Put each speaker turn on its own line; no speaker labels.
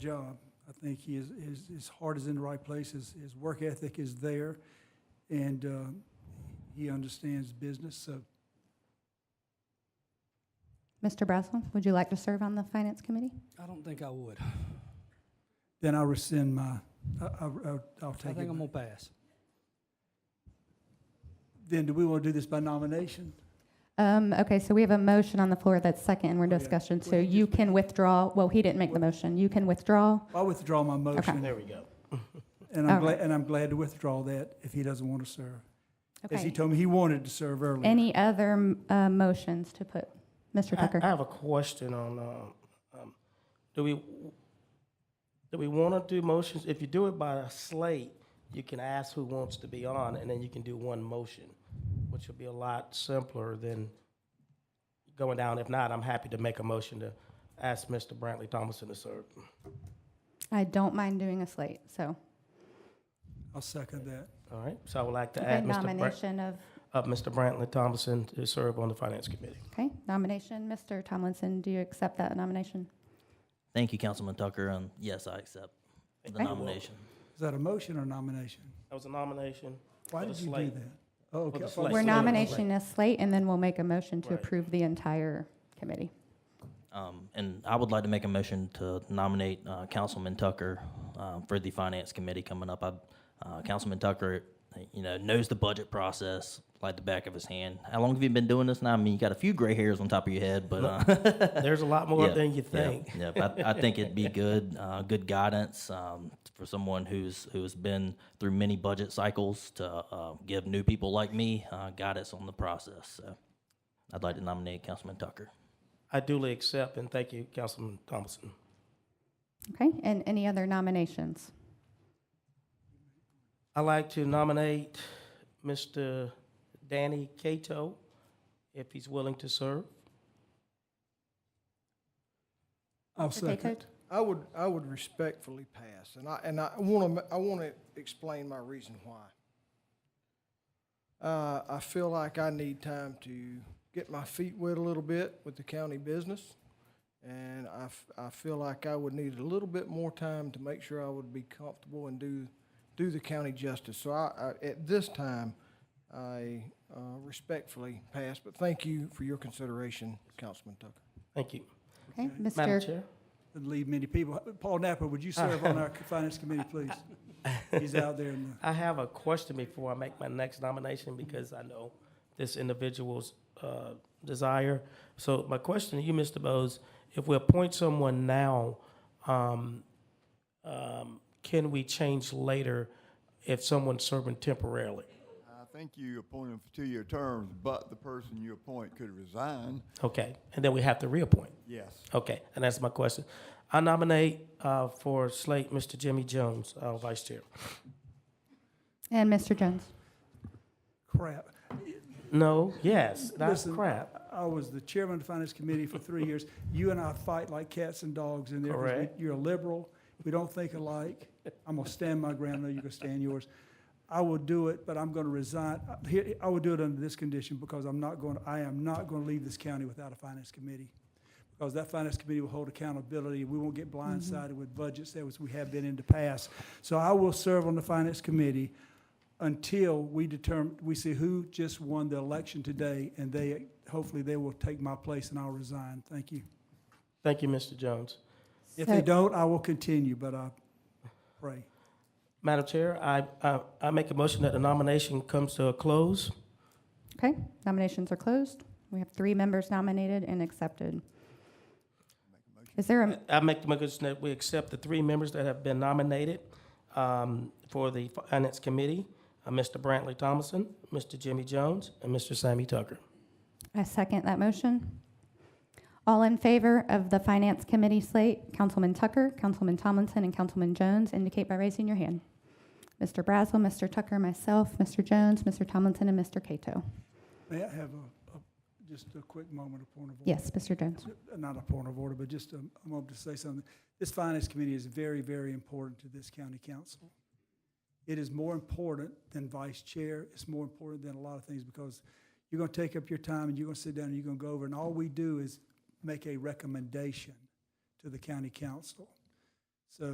job. I think he is, his, his heart is in the right place, his, his work ethic is there, and uh, he understands business, so
Mr. Brazel, would you like to serve on the Finance Committee?
I don't think I would.
then I rescind my, I, I, I'll- I'll
I
take
think
it.
I'm gonna pass.
Then do we want to do this by nomination?
Um, okay, so we have a motion on the floor that's second and we're
Okay.
discussion, so
Oh, Well, you
you can withdraw, well, he didn't make the motion, you can withdraw.
I withdraw my motion.
There we go.
And I'm
All right.
glad, and I'm glad to withdraw that if he doesn't want to serve. As he
Okay.
told me he wanted to serve earlier.
Any other, m- uh, motions to put? Mr.
I, I
Tucker?
have a question on, um, um, do we, do we want to do motions? If you do it by a slate, you can ask who wants to be on, and then you can do one motion, which will be a lot simpler than going down. If not, I'm happy to make a motion to ask Mr. Brantley Thomason to serve.
I don't mind doing a slate, so,
I'll second that.
All right, so I would like to
okay,
add Mr. Br-
nomination of,
uh, Mr. Brantley Thomason to serve on the Finance Committee.
okay, nomination, Mr. Tomlinson, do you accept that nomination?
Thank you, Councilman Tucker, and yes, I accept the
Okay.
nomination.
Is that a motion or nomination?
That was a nomination.
Why
For the
did you do
slate.
that? Oh,
For
okay.
the
I thought-
slate.
We're
Slate.
nominating a slate and then we'll make a motion to
Right.
approve the entire committee.
Um, And I would like to make a motion to nominate uh, Councilman Tucker um, for the Finance Committee coming up. I- uh, Councilman Tucker, you know, knows the budget process like the back of his hand. How long have you been doing this now? I mean, you got a few gray hairs on top of your head, but. uh,
There's a lot more
Yeah,
than you
yeah,
think.
Yeah, but I, I think it'd be good, uh, good guidance um, for someone who's who's been through many budget cycles to uh, give new people like me uh, guidance on the process. So, I'd like to nominate Councilman Tucker.
I duly accept, and thank you, Councilman Thompson.
Okay, and any other nominations?
I'd like to nominate Mr. Danny Cato, if he's willing to serve.
I'll
Okay,
second.
Coach?
I would, I would respectfully pass, and I, and I want to, I want to explain my reason why. Uh, I feel like I need time to get my feet wet a little bit with the county business, and I, f- I feel like I would need a little bit more time to make sure I would be comfortable and do, do the county justice. So I, I, at this time, I uh, respectfully pass, but thank you for your consideration, Councilman Tucker.
Thank you.
Okay,
Madam
Mr.
Chair?
Didn't leave many people. Paul Napper, would you serve on our finance committee, please? He's out there in the.
I have a question before I make my next nomination because I know this individual's uh, desire. So my question to you, Mr. Bowes, if we appoint someone now, um, um, can we change later if someone's serving temporarily?
I think you appoint them for two-year terms, but the person you appoint could resign.
Okay, and then we have to reappoint.
Yes.
Okay, and that's my question. I nominate uh, for slate Mr. Jimmy Jones, uh, Vice Chair.
and Mr. Jones.
crap.
No, yes, that's
Listen,
crap.
I was the chairman of the finance committee for three years. You and I fight like cats and dogs in there. 'cause we-
Correct.
You're a liberal. We don't think alike. I'm gonna stand my ground. I know you're gonna stand yours. I will do it, but I'm gonna resign. I- here- I will do it under this condition because I'm not going, I am not gonna leave this county without a finance committee. Because that finance committee will hold accountability. We won't get blindsided with budgets as we have been in the past. So I will serve on the finance committee until we determine, we see who just won the election today, and they, hopefully they will take my place and I'll resign. Thank you.
Thank you, Mr. Jones.
If they
So-
don't, I will continue, but I pray.
Madam Chair, I, I, I make a motion that the nomination comes to a close.
Okay, nominations are closed. We have three members nominated and accepted. Is there a,
I make the motion that we accept the three members that have been nominated um, for the Finance Committee, uh, Mr. Brantley Thomason, Mr. Jimmy Jones, and Mr. Sammy Tucker.
I second that motion. All in favor of the Finance Committee slate, Councilman Tucker, Councilman Tomlinson, and Councilman Jones, indicate by raising your hand. Mr. Brazel, Mr. Tucker, myself, Mr. Jones, Mr. Tomlinson, and Mr. Cato.
May I have a, a- just a quick moment of point of order?
Yes, Mr. Jones.
Not a point of order, but just a a moment to say something. This finance committee is very, very important to this county council. It is more important than vice chair. It's more important than a lot of things because you're going to take up your time and you're going to sit down and you're going to go over. And all we do is make a recommendation to the county council.